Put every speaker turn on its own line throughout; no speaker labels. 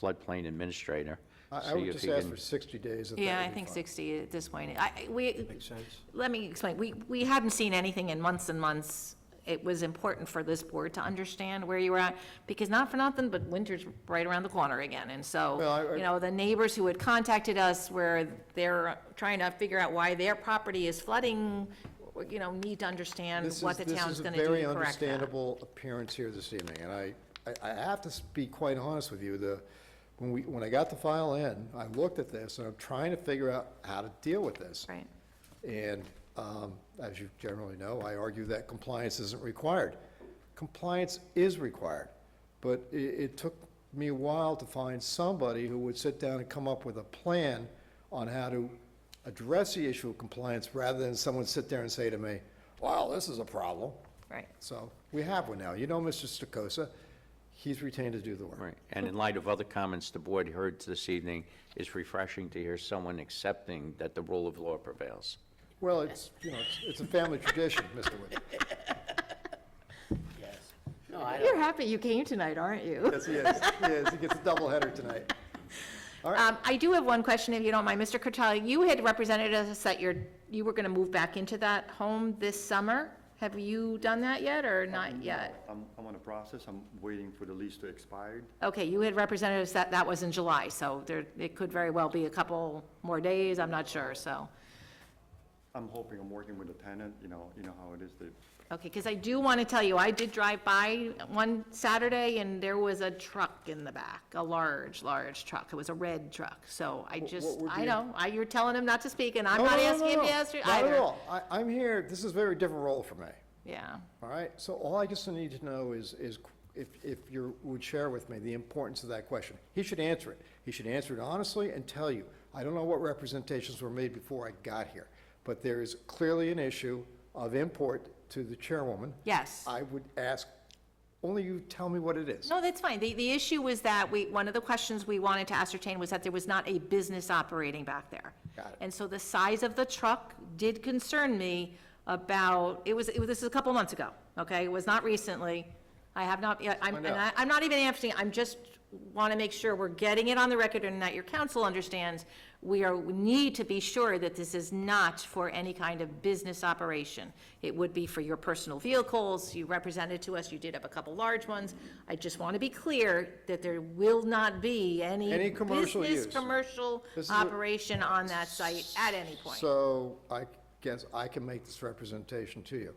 floodplain administrator.
I I
see
would
if
just
he
ask
can-
for 60 days. that
Yeah,
that
I
would be
think
fine.
60 at this point. I, I- we,
Makes sense.
let me explain. We, we hadn't seen anything in months and months. It was important for this board to understand where you were at, because not for nothing, but winter's right around the corner again. And
Well, I-
so,
I-
you know, the neighbors who had contacted us where they're trying to figure out why their property is flooding, you know, need to understand
This
what
is-
the town's going to
This
do
is a very
to correct that.
understandable appearance here this evening, and I, I- I have to be quite honest with you, the, when we, when I got the file in, I looked at this, and I'm trying to figure out how to deal with this.
Right.
And um, as you generally know, I argue that compliance isn't required. Compliance is required, but i it took me a while to find somebody who would sit down and come up with a plan on how to address the issue of compliance, rather than someone sit there and say to me, wow, this is a problem.
Right.
So we have one now. You know Mr. Stokosa, he's retained to do the work.
Right, and in light of other comments the board heard this evening, it's refreshing to hear someone accepting that the rule of law prevails.
Well, it's, you know, it's, it's a family tradition, Mr. Wood.
No, I don't,
You're happy you came tonight, aren't you?
Yes, he is. He is. He gets a doubleheader tonight.
Um, I do have one question, if you don't mind. Mr. Curtali, you had represented us that you're, you were gonna move back into that home this summer. Have you done that yet, or not yet?
I'm, I'm on a process, I'm waiting for the lease to expire.
Okay, you had represented us that that was in July, so there, it could very well be a couple more days, I'm not sure, so.
I'm hoping, I'm working with the tenant, you know, you know how it is, they,
Okay, because I do want to tell you, I did drive by one Saturday, and there was a truck in the back, a large, large truck. It was a red truck, so I just,
would
I
be-
know, I- you're telling him not to speak, and I'm
No,
not
no, no,
asking
no,
him to
no.
ask you
Not
either.
at all. I, I'm here, this is a very different role for me,
Yeah.
all right? So all I just need to know is, is if, if you would share with me the importance of that question. He should answer it. He should answer it honestly and tell you. I don't know what representations were made before I got here, but there is clearly an issue of import to the chairwoman.
Yes.
I would ask, only you tell me what it is.
No, that's fine. The, the issue was that we, one of the questions we wanted to ascertain was that there was not a business operating back there.
Got it.
And so the size of the truck did concern me about, it was, it was, this is a couple months ago, okay? It was not recently. I have not, yeah, I'm,
Find
and I,
out.
I'm not even answering, I'm just want to make sure we're getting it on the record and that your council understands. We are, we need to be sure that this is not for any kind of business operation. It would be for your personal vehicles. You represented to us, you did have a couple large ones. I just want to be clear that there will not be any
Any commercial use.
business, commercial
This is a-
operation on that site at any point.
So I guess I can make this representation to you.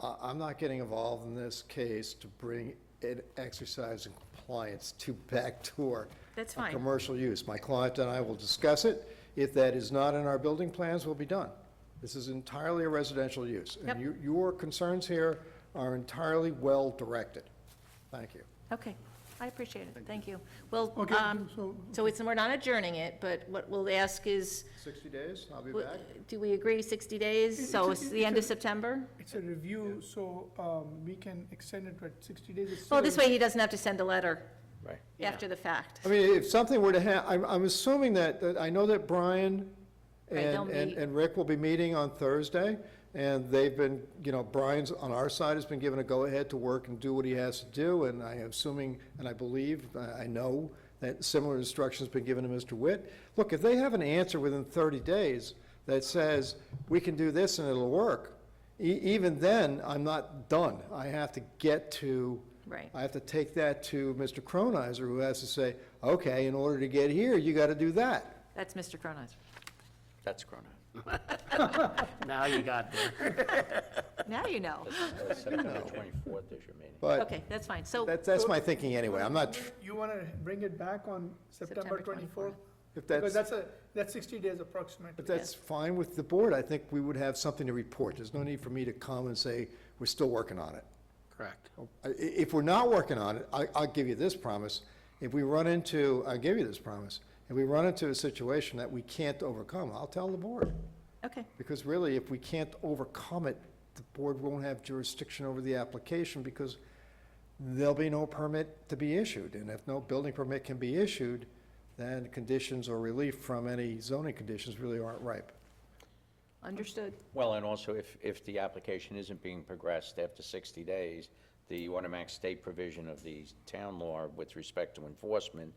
I, I'm not getting involved in this case to bring an exercise in compliance to backdoor.
That's
a
fine.
Commercial use. My client and I will discuss it. If that is not in our building plans, we'll be done. This is entirely a residential use.
Yep.
And your, your concerns here are entirely well-directed. Thank you.
Okay, I appreciate it, thank you. Well,
Okay,
um,
so-
so it's, we're not adjourning it, but what we'll ask is,
60 days, I'll be
w-
back.
do we agree 60 days? So
It's a-
it's the end of
it's a-
September?
It's a review, so um, we can extend it to 60 days. It's
Well, Oh, this
still-
way he doesn't have to send a letter
Right.
after the fact.
I mean, if something were to hap, I'm, I'm assuming that, that, I know that Brian
Right, they'll
and, and,
meet.
and Rick will be meeting on Thursday, and they've been, you know, Brian's, on our side, has been given a go-ahead to work and do what he has to do, and I am assuming, and I believe, uh, I I know, that similar instructions been given to Mr. Witt. Look, if they have an answer within thirty days that says, we can do this and it'll work, e- even then, I'm not done. I have to get to.
Right.
I have to take that to Mr. Cronizer, who has to say, okay, in order to get here, you got to do that.
That's Mr. Cronin's.
That's grown up.
now you got there.
Now you know.
That's September 24th is your meeting.
But
Okay, that's fine, so,
that's, that's my thinking anyway. I'm not,
You want to bring it back on September
September 24th.
24th?
if
Because
that's,
that's a, that's 60 days approximately.
if that's fine with the board, I think we would have something to report. There's no need for me to come and say, we're still working on it.
Correct.
I- If we're not working on it, I, I'll give you this promise. If we run into, I'll give you this promise. If we run into a situation that we can't overcome, I'll tell the board.
okay,
Because really, if we can't overcome it, the board won't have jurisdiction over the application because there'll be no permit to be issued. And if no building permit can be issued, then conditions or relief from any zoning conditions really aren't ripe.
understood.
Well, and also, if, if the application isn't being progressed after 60 days, the automatic state provision of the town law with respect to enforcement